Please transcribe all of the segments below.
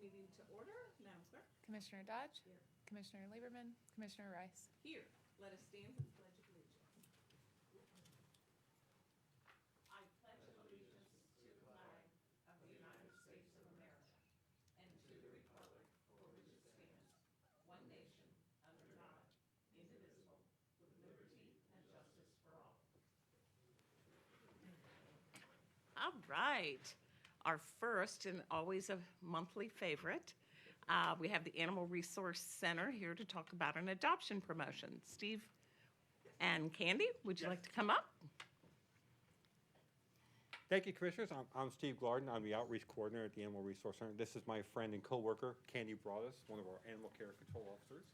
meeting to order. Madam Clerk? Commissioner Dodge, Here. Commissioner Lieberman, Commissioner Rice. Here, let us stand for the Pledge of Allegiance. I pledge allegiance to the flag of the United States of America and to the republic for which it stands, one nation, under God, indivisible, with liberty and justice for all. All right. Our first and always a monthly favorite. Uh, we have the Animal Resource Center here to talk about an adoption promotion. Steve and Candy, would you like to come up? Thank you, Commissioners. I'm, I'm Steve Glarden. I'm the Outreach Coordinator at the Animal Resource Center. This is my friend and coworker, Candy Broadus, one of our animal care control officers.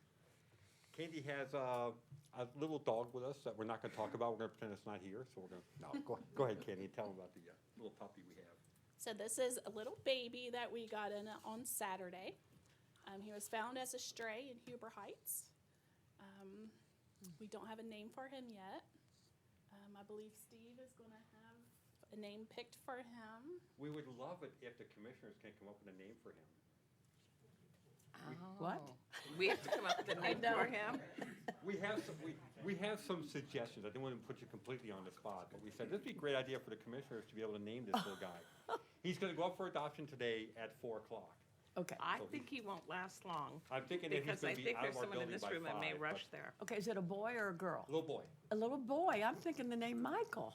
Candy has uh, a little dog with us that we're not going to talk about. We're going to pretend it's not here, so we're going to, no, go, go ahead, Candy, tell them about the uh, little puppy we have. So this is a little baby that we got in on Saturday. Um, he was found as a stray in Huber Heights. Um, we don't have a name for him yet. Um, I believe Steve is going to have a name picked for him. We would love it if the Commissioners can come up with a name for him. What? We have to come up with a name for him. We have some, we, we have some suggestions. I didn't want to put you completely on the spot, but we said this would be a great idea for the commissioners to be able to name this little guy. He's going to go up for adoption today at four o'clock. Okay, I think he won't last long. I'm thinking that he's Because I going to be think out there's of our someone in building this by room that may five. but- rush there. okay, is it a boy or a girl? Little boy. A little boy, I'm thinking the name Michael.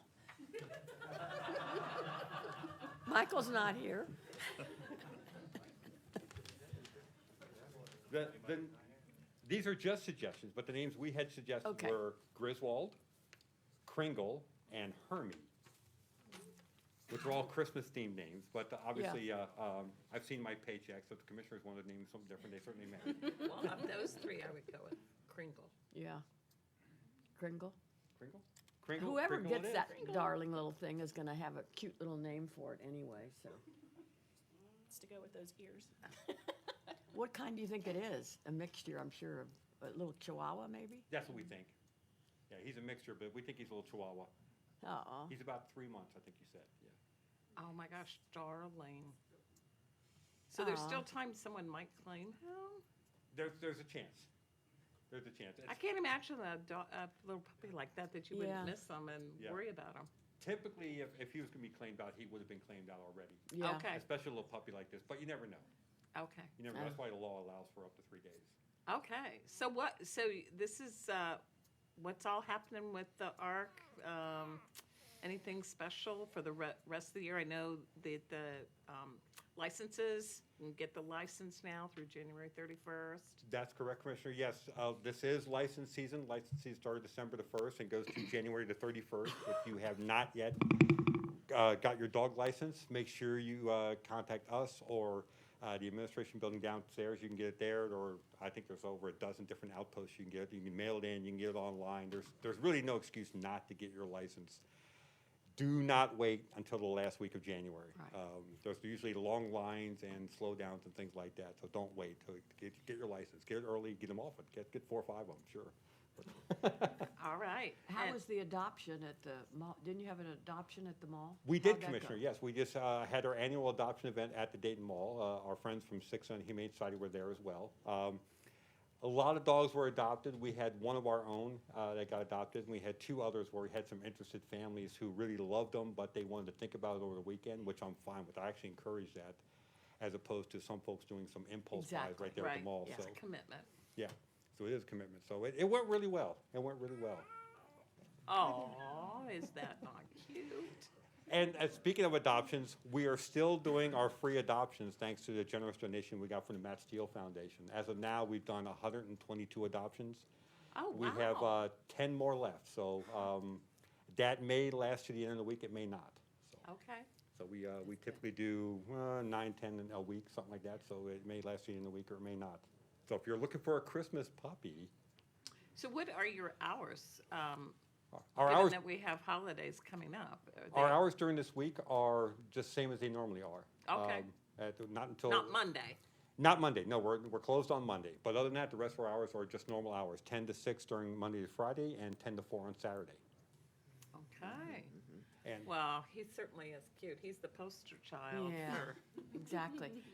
Michael's not here. The, the, these are just suggestions, but the names we had suggested Okay. were Griswold, Kringle, and Hermie, which are all Christmas-themed names, but obviously, uh, um, I've seen my paycheck, so if the commissioners wanted to name something different, they certainly may. Well, of those three, I would go with Kringle. Yeah. Kringle. Kringle? Kringle? Whoever Kringle it gets is. that darling little thing is gonna have a cute little name for it anyway, so. It's to go with those ears. What kind do you think it is? A mixture, I'm sure, of a little chihuahua maybe? That's what we think. Yeah, he's a mixture, but we think he's a little chihuahua. Uh-uh. He's about three months, I think you said, yeah. Oh my gosh, darling. So there's Aw. still time someone might claim him? There's, there's a chance. There's a chance. I It's- can't imagine a, do- a little puppy like that that you wouldn't Yeah. miss them and Yeah. worry about them. Typically, if, if he was gonna be claimed out, he would have been claimed out already. Yeah. Okay. Especially a little puppy like this, but you never know. Okay. You never, know. that's Uh. why the law allows for up to three days. Okay. So what? So this is uh, what's all happening with the arc. Um, anything special for the re- rest of the year? I know that the um, licenses you can get the license now through January thirty first. That's correct, Commissioner. Yes, uh, this is license season. License season started December the first and goes to January the thirty-first. If you have not yet, uh, got your dog license, make sure you, uh, contact us or, uh, the administration building downstairs. You can get it there, or I think there's over a dozen different outposts you can get. it. You can mail it in, you can get it online. There's, there's really no excuse not to get your license. do not wait until the last week of January. Right. Um, There's usually long lines and slowdowns and things like that, so don't wait till, get, get your license, get it early, get them off, it. get, get four or five of them, sure. All right. How And- was the adoption at the mall? Didn't you have an adoption at the mall? We How'd did, Oh, that go? Commissioner, yes, we just uh, had our annual adoption event at the Dayton Mall. Uh, Our friends from Six on Humane Society were there as well. Um, A lot of dogs were adopted. We had one of our own uh, that got adopted, and we had two others where we had some interested families who really loved them, but they wanted to think about it over the weekend, which I'm fine with. I actually encourage that, as opposed to some folks doing some impulse buys Exactly. right there at the mall. It's So, a commitment. yeah, so it is a commitment. So it it went really well. It went really well. Oh, is that not cute? And uh, speaking of adoptions, we are still doing our free adoptions thanks to the generous donation we got from the Matt Steele Foundation. As of now, we've done 122 adoptions. Oh, We have wow. uh, 10 more left, so um, that may last to the end of the week, it may not. So- Okay. So we, uh, we typically do uh, nine, 10 in a week, something like that, so it may last to the end of the week or it may not. So if you're looking for a Christmas puppy, So what are your hours? Um, our given hours, that we have holidays coming up. Are our they- hours during this week are just same as they normally are. Okay. Um, at- Not until. Not Monday. Not Monday, no, we're, we're closed on Monday, but other than that, the rest of our hours are just normal hours, ten to six during Monday to Friday and ten to four on Saturday. Okay. And Well, he certainly is cute. He's the poster child Yeah, for exactly.